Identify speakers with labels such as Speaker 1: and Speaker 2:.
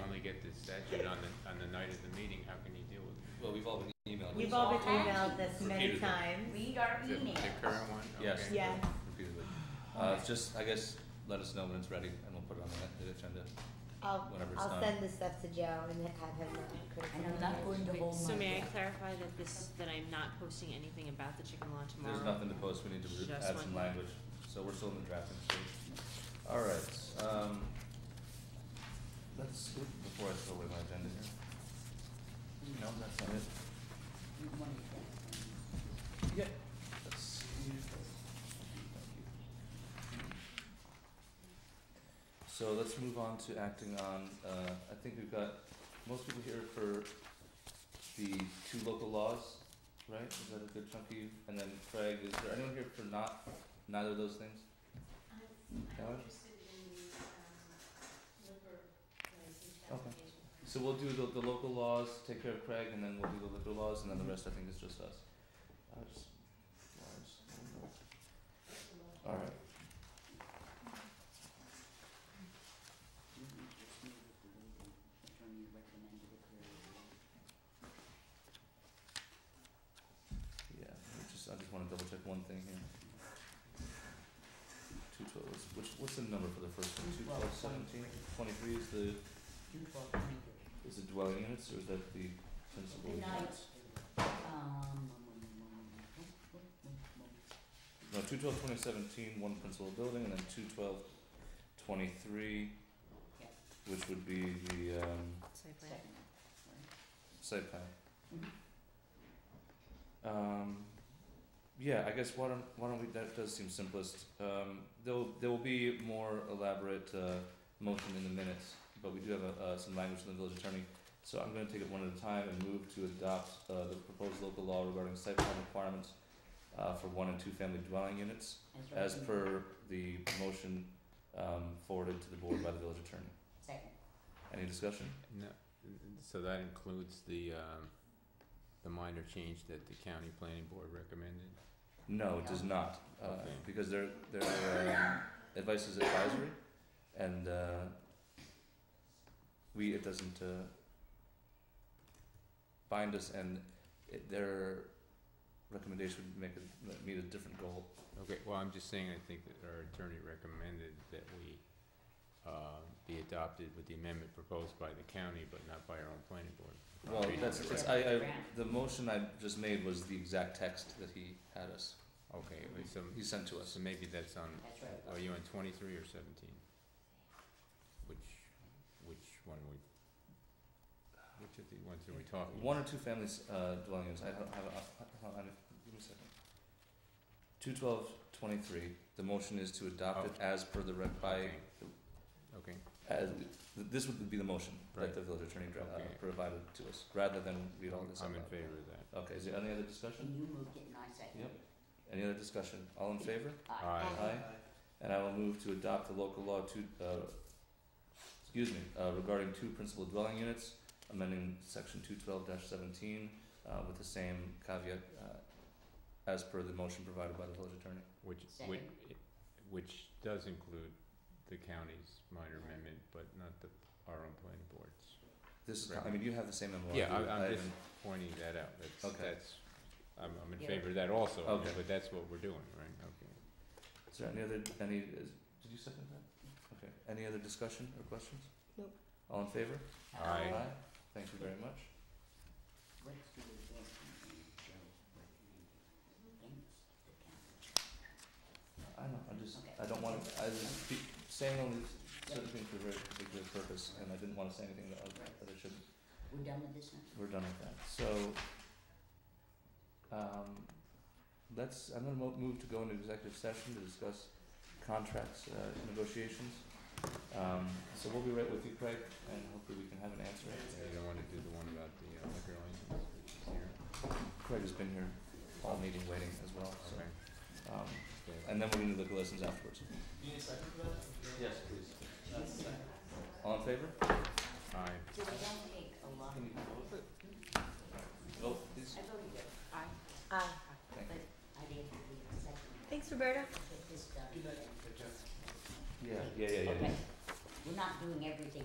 Speaker 1: finally get this statute on the, on the night of the meeting, how can you deal with it?
Speaker 2: Well, we've all been emailed.
Speaker 3: We've
Speaker 2: this
Speaker 3: all been
Speaker 2: off
Speaker 3: emailed this many
Speaker 2: Repeatedly.
Speaker 3: times.
Speaker 4: Read our
Speaker 1: The-
Speaker 4: email.
Speaker 1: The current one?
Speaker 2: Yes.
Speaker 1: Okay.
Speaker 3: Yeah.
Speaker 2: Repeatedly. Uh, it's just, I guess, let us know when it's ready and we'll put it on the ne- the agenda.
Speaker 3: I'll,
Speaker 2: Whenever it's
Speaker 3: I'll
Speaker 2: done.
Speaker 3: send this stuff to Joe and then have him
Speaker 4: And
Speaker 3: criticize.
Speaker 4: I'm not going to hold Oh my.
Speaker 5: So may I
Speaker 4: breath.
Speaker 5: clarify that this, that I'm not posting anything about the chicken law tomorrow?
Speaker 2: There's nothing to post, we need to re-
Speaker 5: Just
Speaker 2: add some
Speaker 5: one.
Speaker 2: language, so we're still in the drafting stage. Alright, um, let's, oop, before I throw away my agenda here. No, that's not it. Yeah, let's see. Thank you. So let's move on to acting on, uh, I think we've got most people here for the two local laws, right? Is that a good chunk of you? And then Craig, is there anyone here for not, neither of those things? Ellen? Okay. So we'll do the, the local laws, take care of Craig, and then we'll do the liquor laws, and then the rest I think is just us. I just, I just don't know. Alright. Yeah, I just, I just wanna double check one thing here. Two twelves, which, what's the number for the first one? Two twelve seventeen, twenty-three is the, is it dwelling units or is that the principal?
Speaker 4: Good night.
Speaker 2: units? No, two twelve twenty seventeen, one principal building, and then two twelve twenty-three,
Speaker 4: Yes.
Speaker 2: which would be the, um,
Speaker 5: Site plan.
Speaker 2: site plan. Um, yeah, I guess why don't, why don't we, that does seem simplest. Um, there'll, there will be more elaborate, uh, motion in the minutes, but we do have, uh, some language from the village attorney. So I'm gonna take it one at a time and move to adopt, uh, the proposed local law regarding site plan requirements, uh, for one and two family dwelling units, as per the motion, um, forwarded to the board by the village attorney.
Speaker 4: Second.
Speaker 2: Any discussion?
Speaker 1: No, so that includes the, um, the minor change that the county planning board recommended?
Speaker 2: No, it does not, uh,
Speaker 1: Okay.
Speaker 2: because their, their um, advice is advisory, and, uh, we, it doesn't, uh, bind us, and it, their recommendation would make it, meet a different goal.
Speaker 1: Okay, well, I'm just saying, I think that our attorney recommended that we, uh, be adopted with the amendment proposed by the county, but not by our own planning board. I'm
Speaker 2: Well,
Speaker 1: reading
Speaker 2: that's,
Speaker 1: it
Speaker 2: it's,
Speaker 1: right.
Speaker 2: I, I, the motion I just made was the exact text that he had us,
Speaker 1: Okay, wait, so,
Speaker 2: he sent to us.
Speaker 1: so maybe that's on,
Speaker 4: That's right.
Speaker 1: are you on twenty-three or seventeen? Which, which one we, which of the ones are we talking about?
Speaker 2: One or two families, uh, dwelling units, I don't have, a- hold on, give me a second. Two twelve twenty-three, the motion is to adopt it as per the rec by,
Speaker 1: Okay. Okay,
Speaker 2: as, th- this would be the motion that
Speaker 1: Right.
Speaker 2: the village attorney dra- uh,
Speaker 1: Okay.
Speaker 2: provided to us, rather than read all this out
Speaker 1: I'm in
Speaker 2: loud.
Speaker 1: favor of that.
Speaker 2: Okay, is there any other discussion?
Speaker 4: And you moved it and I seconded
Speaker 2: Yep.
Speaker 4: it.
Speaker 2: Any other discussion? All in favor?
Speaker 1: Aye.
Speaker 2: Aye. And I will move to adopt the local law two, uh, excuse me, uh, regarding two principal dwelling units, amending section two twelve seventeen, uh, with the same caveat, uh, as per the motion provided by the village attorney.
Speaker 1: Which, which,
Speaker 4: Second.
Speaker 1: which does include the county's minor amendment, but not the, our own planning boards.
Speaker 2: This is, I mean, you have the same MOU.
Speaker 1: Yeah, I, I'm
Speaker 2: I
Speaker 1: just
Speaker 2: haven't-
Speaker 1: pointing that out, that's,
Speaker 2: Okay.
Speaker 1: that's, I'm, I'm in
Speaker 4: Yeah.
Speaker 1: favor of that also, I mean,
Speaker 2: Okay.
Speaker 1: but that's what we're doing, right, okay.
Speaker 2: Is there any other, any, is, did you second that? Okay, any other discussion or questions?
Speaker 3: Nope.
Speaker 2: All in favor?
Speaker 1: Aye.
Speaker 2: Thank you very much.
Speaker 4: Let's do the best we can, Joe, recommended against the county.
Speaker 2: I know, I just,
Speaker 4: Okay.
Speaker 2: I don't wanna, I was be- saying only certain things for a very particular purpose, and I didn't wanna say anything that, I- that I shouldn't.
Speaker 4: We're done with this now?
Speaker 2: we're done with that. So, um, let's, I'm gonna mo- move to go into executive session to discuss contracts, uh, negotiations. Um, so we'll be right with you, Craig, and hopefully we can have an answer.
Speaker 1: Yeah, You don't wanna do the one about the uh, liquor license, which is here,
Speaker 2: Craig has been here all meeting waiting as well, so,
Speaker 1: okay,
Speaker 2: um,
Speaker 1: okay.
Speaker 2: and then we're gonna do the lessons afterwards. Yes, please. All in favor?
Speaker 1: Aye.
Speaker 4: So we don't take a lot of.
Speaker 2: Can you vote? Vote, Oh, please.
Speaker 4: I voted yes. Aye.
Speaker 3: Aye.
Speaker 4: But
Speaker 2: Thank you.
Speaker 4: I didn't leave a second.
Speaker 3: Thanks, Roberta.
Speaker 4: Get this done.
Speaker 2: Yeah, yeah, yeah, yeah.
Speaker 4: Okay. We're not doing everything